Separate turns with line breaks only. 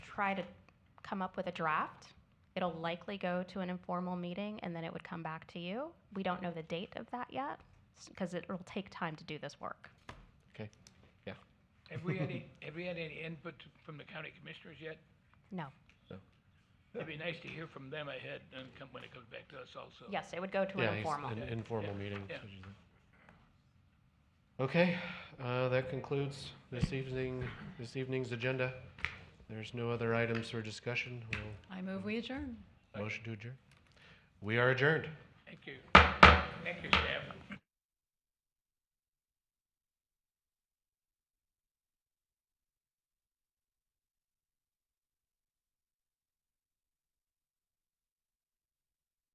try to come up with a draft. It'll likely go to an informal meeting and then it would come back to you. We don't know the date of that yet because it'll take time to do this work.
Okay, yeah.
Have we had any, have we had any input from the county commissioners yet?
No.
So,
It'd be nice to hear from them ahead and come, when it comes back to us also.
Yes, it would go to
yeah,
an
he's-
informal.
An informal meeting.
yeah.
Okay, uh, that concludes this evening, this evening's agenda. There's no other items for discussion. We'll
I move we adjourn.
motion to adjourn. We are adjourned.
Thank you. Thank you, staff.